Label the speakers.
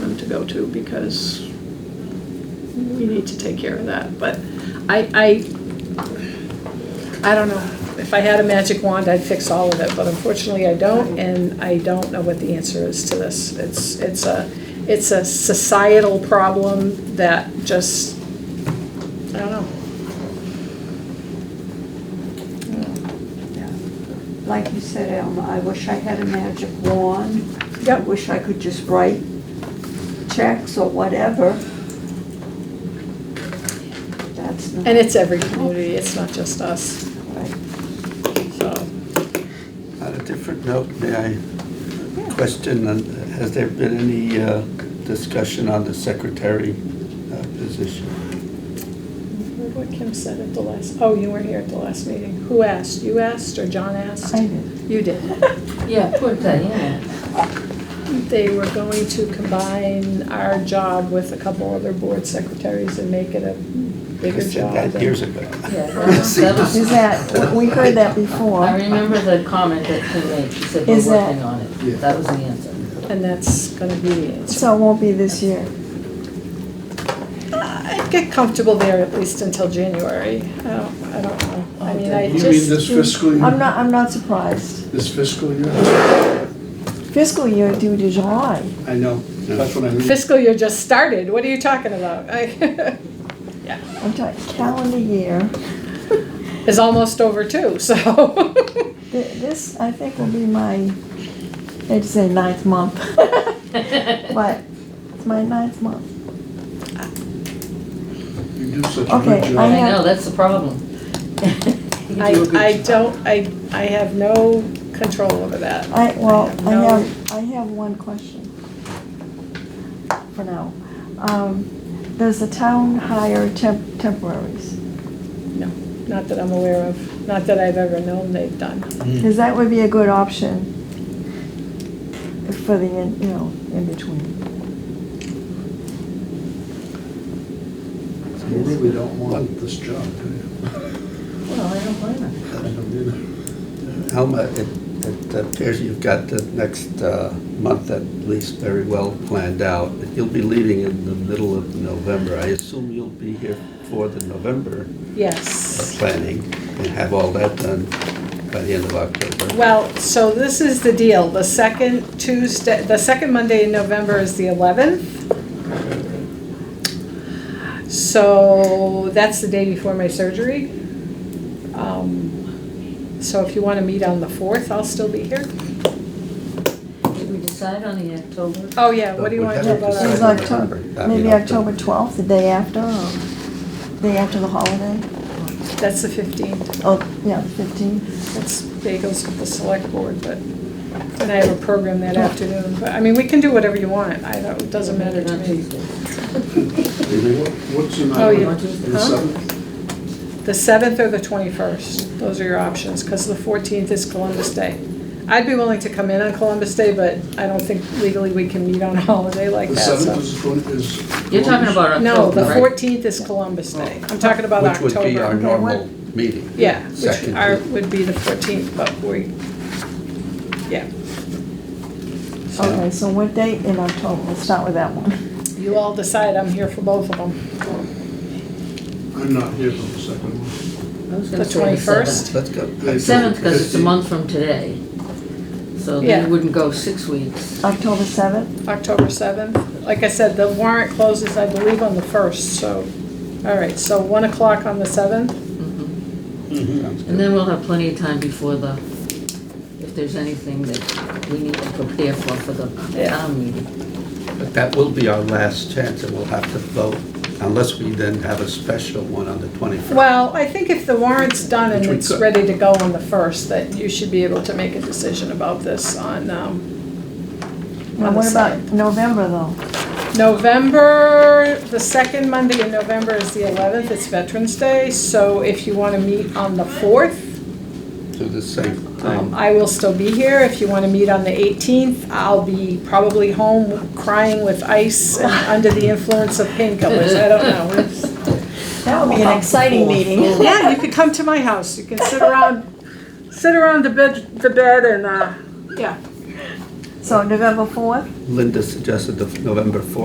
Speaker 1: go to because we need to take care of that. But I, I, I don't know. If I had a magic wand, I'd fix all of it, but unfortunately I don't, and I don't know what the answer is to this. It's, it's a, it's a societal problem that just, I don't know.
Speaker 2: Like you said, Alma, I wish I had a magic wand. I
Speaker 1: Yep.
Speaker 2: wish I could just write checks or whatever. That's not.
Speaker 1: And it's every community, it's not just us,
Speaker 2: right.
Speaker 1: so.
Speaker 3: On a different note, may I question, uh, has there been any uh, discussion on the secretary uh, position?
Speaker 1: Remember what Kim said at the last, oh, you weren't here at the last meeting. Who asked? You asked or John asked?
Speaker 2: I did.
Speaker 1: You did.
Speaker 4: Yeah, put that in.
Speaker 1: They were going to combine our job with a couple other board secretaries and make it a
Speaker 3: I
Speaker 1: bigger
Speaker 3: said
Speaker 1: job.
Speaker 3: that years ago.
Speaker 4: Yeah.
Speaker 3: See,
Speaker 4: That was-
Speaker 5: Is that, we heard that
Speaker 4: I
Speaker 5: before.
Speaker 4: remember the comment that Kim made, she said, we're
Speaker 5: Is that-
Speaker 4: working on it. That was the answer.
Speaker 1: And that's gonna be the answer.
Speaker 5: So it won't be this year.
Speaker 1: I'd Uh, get comfortable there at least until January. I don't, I don't know. I mean, I
Speaker 6: Oh, You
Speaker 1: just.
Speaker 6: mean this fiscal
Speaker 5: I'm
Speaker 6: year,
Speaker 5: not, I'm not surprised.
Speaker 6: this fiscal year?
Speaker 5: Fiscal year due to July.
Speaker 6: I know, that's what I mean.
Speaker 1: Fiscal year just started. What are you talking about? I-
Speaker 5: I'm talking calendar year.
Speaker 1: It's almost over too, so.
Speaker 5: Th- This, I think, will be my, they'd say ninth month. But it's my ninth month.
Speaker 6: You do such a
Speaker 5: Okay,
Speaker 6: good
Speaker 5: I
Speaker 6: job.
Speaker 4: I
Speaker 5: have-
Speaker 4: know, that's the problem.
Speaker 1: I, I don't, I, I have no control over that.
Speaker 5: I, well, I
Speaker 1: no-
Speaker 5: have, I have one question. For now. Um, Does the town hire temp, temporaries?
Speaker 1: No, not that I'm aware of, not that I've ever known they've done.
Speaker 3: Mm. Hmm.
Speaker 5: Because that would be a good option for the, in- you know, in between.
Speaker 6: You really don't want this job, do you?
Speaker 4: Well, I don't blame her.
Speaker 6: I uh, don't either.
Speaker 3: Alma, it it appears you've got the next uh, month at least very well planned out. You'll be leaving in the middle of November. I assume you'll be here for the November
Speaker 1: Yes.
Speaker 3: planning and have all that done by the end of October.
Speaker 1: Well, so this is the deal, the second Tuesday, the second Monday in November is the eleventh. So that's the day before my surgery. Um, So if you want to meet on the fourth, I'll still be here.
Speaker 4: Did we decide on the October?
Speaker 1: Oh, yeah, what do you want to do about
Speaker 5: It
Speaker 1: our
Speaker 5: was
Speaker 3: Decide in
Speaker 5: October,
Speaker 3: November. I mean,
Speaker 5: maybe
Speaker 3: October.
Speaker 5: October 12th, the day after, or day after the holiday?
Speaker 1: That's the 15th.
Speaker 5: Oh, yeah, 15th.
Speaker 1: That's bagels with the select board, but, and I have a program that afternoon. But, I mean, we can do whatever you want. I don't, it doesn't matter to
Speaker 4: On
Speaker 1: me.
Speaker 4: Tuesday.
Speaker 6: What- What's the
Speaker 1: Oh,
Speaker 6: number?
Speaker 1: yeah.
Speaker 6: The
Speaker 1: Huh?
Speaker 6: seventh?
Speaker 1: The 7th or the 21st, those are your options, because the 14th is Columbus Day. I'd be willing to come in on Columbus Day, but I don't think legally we can meet on a holiday like
Speaker 6: The
Speaker 1: that,
Speaker 6: seventh
Speaker 1: so.
Speaker 6: is twenty, is.
Speaker 4: You're talking about
Speaker 1: No, the
Speaker 4: October, right?
Speaker 1: 14th is Columbus Day. I'm talking about
Speaker 3: Which
Speaker 1: October.
Speaker 3: would be our
Speaker 5: Okay,
Speaker 3: normal meeting.
Speaker 1: Yeah, which
Speaker 3: second
Speaker 1: are,
Speaker 3: meeting.
Speaker 1: would be the 14th, but we, yeah.
Speaker 3: So-
Speaker 5: Okay, so what date in October? We'll start with that one.
Speaker 1: You all decide, I'm here for both of them.
Speaker 6: I'm not here for the second one.
Speaker 4: I was gonna
Speaker 1: The
Speaker 4: say
Speaker 1: 21st?
Speaker 3: Let's go.
Speaker 4: Seventh, because it's a month from today. So
Speaker 1: Yeah.
Speaker 4: then you wouldn't go six weeks.
Speaker 5: October 7th?
Speaker 1: October 7th. Like I said, the warrant closes, I believe, on the 1st, so, all right, so 1 o'clock on the 7th?
Speaker 4: Mhm.
Speaker 3: Sounds
Speaker 4: And
Speaker 3: good.
Speaker 4: then we'll have plenty of time before the, if there's anything that we need to prepare for, for the
Speaker 1: Yeah.
Speaker 4: town meeting.
Speaker 3: But that will be our last chance, and we'll have to vote, unless we then have a special one on the 21st.
Speaker 1: Well, I think if the warrant's done and
Speaker 3: Which we
Speaker 1: it's
Speaker 3: could.
Speaker 1: ready to go on the 1st, that you should be able to make a decision about this on, um,
Speaker 5: Now,
Speaker 1: on the
Speaker 5: what about
Speaker 1: 7th.
Speaker 5: November, though?
Speaker 1: November, the second Monday in November is the 11th, it's Veterans Day, so if you want to meet on the 4th,
Speaker 3: Do the same
Speaker 1: Um,
Speaker 3: thing.
Speaker 1: I will still be here. If you want to meet on the 18th, I'll be probably home crying with ice and under the influence of painkillers. I don't know.
Speaker 5: That would be an exciting meeting.
Speaker 1: Yeah, you could come to my house. You can sit around, sit around the bed, the bed and, uh, yeah.
Speaker 5: So November 4th?
Speaker 3: Linda suggested the November 4th.